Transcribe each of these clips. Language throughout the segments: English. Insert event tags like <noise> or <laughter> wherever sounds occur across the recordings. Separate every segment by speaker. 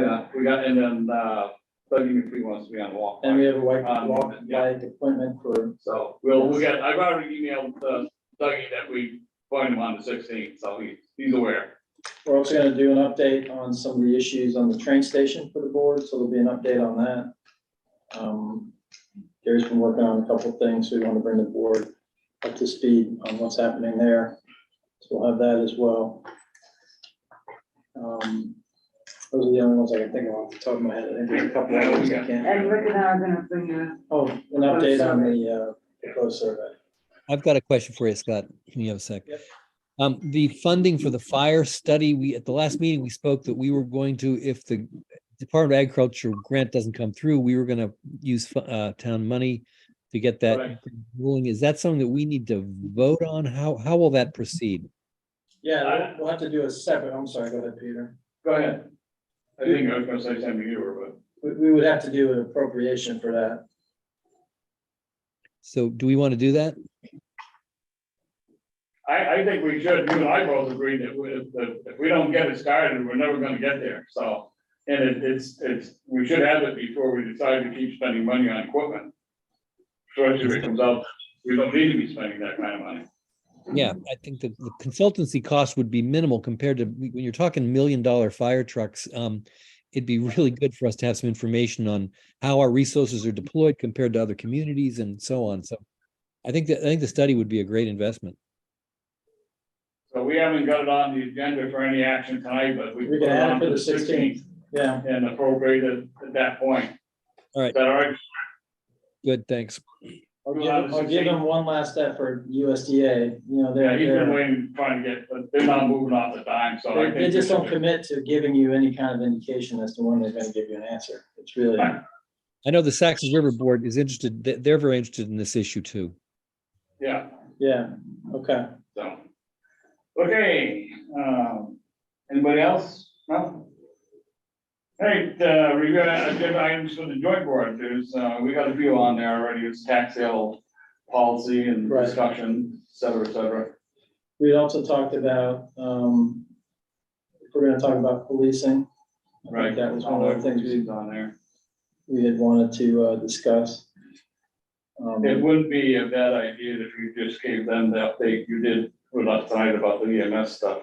Speaker 1: Yeah, we got, and then, uh, Doug McPhee wants to be on walk.
Speaker 2: And we have a white
Speaker 1: Um,
Speaker 2: walk,
Speaker 1: yeah.
Speaker 2: white appointment for,
Speaker 1: So we'll, we got, I've already emailed uh, Dougie that we find him on the sixteenth, so he, he's aware.
Speaker 2: we're also gonna do an update on some of the issues on the train station for the board, so there'll be an update on that. Um, Gary's been working on a couple of things, we want to bring the board up to speed on what's happening there. So we'll have that as well. Um, Those are the only ones I can think of off the top of my head, I think there's a couple of others I can't.
Speaker 3: And Rick and I are gonna bring you.
Speaker 2: Oh, an update on the, uh, proposed survey.
Speaker 4: I've got a question for you, Scott. Can you have a sec?
Speaker 2: Yep.
Speaker 4: Um, the funding for the fire study, we, at the last meeting, we spoke that we were going to, if the Department of Agriculture grant doesn't come through, we were gonna use, fu- uh, town money to get
Speaker 1: Right.
Speaker 4: that ruling. Is that something that we need to vote on? How, how will that proceed?
Speaker 2: Yeah, we'll- we'll have to do a separate, I'm sorry, go ahead, Peter.
Speaker 1: Go ahead. I think I was gonna say something to you, were,
Speaker 2: We, we would have to do an appropriation for that.
Speaker 4: So do we want to do that?
Speaker 1: but I, I think we should, you and I both agree that we- if, the- if we don't get it started, we're never gonna get there, so. And it, it's, it's, we should have it before we decide to keep spending money on equipment. Especially if it comes out, we don't need to be spending that kind of money.
Speaker 4: Yeah, I think that the consultancy cost would be minimal compared to, when you're talking million dollar fire trucks, um, it'd be really good for us to have some information on how our resources are deployed compared to other communities and so on. So I think that, I think the study would be a great investment.
Speaker 1: So we haven't got it on the agenda for any action tonight, but we.
Speaker 2: We can
Speaker 1: put
Speaker 2: add it
Speaker 1: on
Speaker 2: for the 16th. Yeah,
Speaker 1: And appropriate it at that point.
Speaker 4: All right.
Speaker 1: Is that all right?
Speaker 4: Good, thanks.
Speaker 2: I'll give, I'll give them one last effort, USDA, you know,
Speaker 1: Yeah,
Speaker 2: they're,
Speaker 1: he's been
Speaker 2: they're,
Speaker 1: waiting, trying to get, but they're not moving off the dime, so I
Speaker 2: they-
Speaker 1: think.
Speaker 2: they just
Speaker 1: we <laughs>
Speaker 2: don't
Speaker 1: should-
Speaker 2: commit to giving you any kind of indication as to when they're gonna give you an answer. It's really,
Speaker 1: Fine.
Speaker 4: I know the Saxon River Board is interested, they- they're very interested in this issue too.
Speaker 1: Yeah,
Speaker 2: yeah, okay.
Speaker 1: so. Okay, um, anybody else? No? All right, uh, we got agenda items for the joint board. There's, uh, we got a few on there already. It's tax sale policy and
Speaker 2: Right.
Speaker 1: discussion, et cetera, et cetera.
Speaker 2: We also talked about, um, if we're gonna talk about policing. I think
Speaker 1: Right.
Speaker 2: That was one of the things we,
Speaker 1: On there.
Speaker 2: we had wanted to, uh, discuss. Um,
Speaker 1: It wouldn't be a bad idea if you just gave them the update you did with us tonight about the EMS stuff.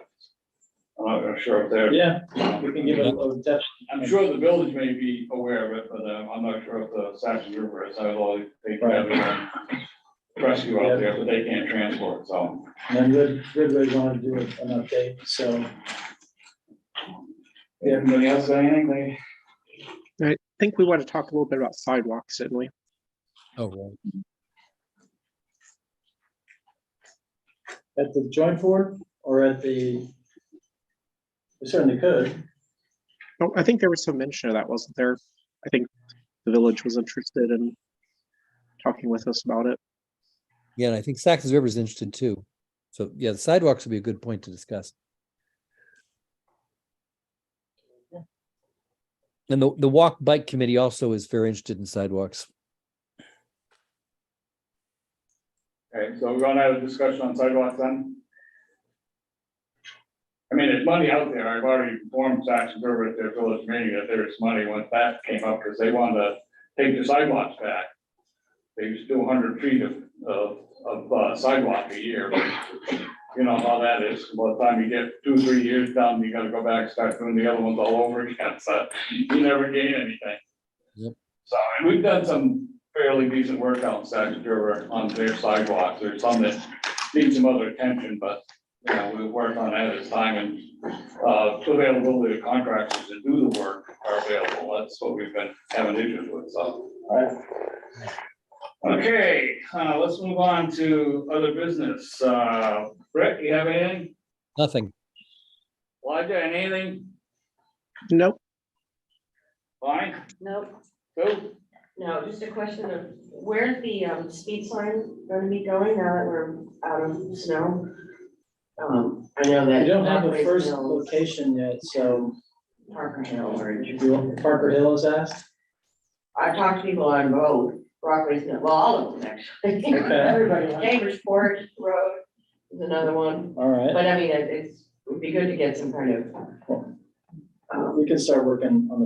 Speaker 1: I'm not sure if they're,
Speaker 2: Yeah, we can give it a little depth.
Speaker 1: I'm sure the village may be aware of it, but um, I'm not sure if the Saxon River is, I know they have a rescue out there, but they can't transport, so.
Speaker 2: And then Rid- Ridgway wanted to do an update, so. Yeah.
Speaker 1: Anybody else got anything they?
Speaker 5: I think we want to talk a little bit about sidewalks, didn't we?
Speaker 4: Oh, right.
Speaker 2: At the joint board or at the? We certainly could.
Speaker 5: Oh, I think there was some mention of that, wasn't there? I think the village was interested in talking with us about it.
Speaker 4: Yeah, and I think Saxon River is interested too. So yeah, the sidewalks would be a good point to discuss. And the, the walk bike committee also is very interested in sidewalks.
Speaker 1: Okay, so we're gonna have a discussion on sidewalks then? I mean, there's money out there. I've already informed Saxon River at their village meeting that there is money once that came up, because they wanted to take the sidewalks back. They just do hundred feet of, of, of uh, sidewalk a year. You know how that is. By the time you get two, three years down, you gotta go back, and start doing the other ones all over again, <laughs> so you never gain anything.
Speaker 4: Yep.
Speaker 1: So, and we've done some fairly decent work out in Saxon River on their sidewalks. There's some that need some other attention, but, you know, we work on that as time and uh, availability of contractors to do the work are available. That's what we've been having issues with, so.
Speaker 2: Alright.
Speaker 1: Okay, uh, let's move on to other business. Uh, Brett, you have anything?
Speaker 4: Nothing.
Speaker 1: Elijah, anything?
Speaker 5: Nope,
Speaker 1: Fine,
Speaker 6: Nope,
Speaker 1: cool?
Speaker 6: no, just a question of where's the um, speed sign gonna be going now that we're out of snow? Um, I know that.
Speaker 2: We don't have the
Speaker 6: Parker
Speaker 2: first
Speaker 6: Hill-
Speaker 2: location yet, so
Speaker 6: Parker Hill or.
Speaker 2: you want- Parker Hill has asked.
Speaker 6: I talked to people on road, Rockways, well, all of them actually. Everybody, Chambers Forge Road is another one,
Speaker 2: All right,
Speaker 6: but I mean, it- it's, would be good to get some kind of. um,
Speaker 2: we can start working on the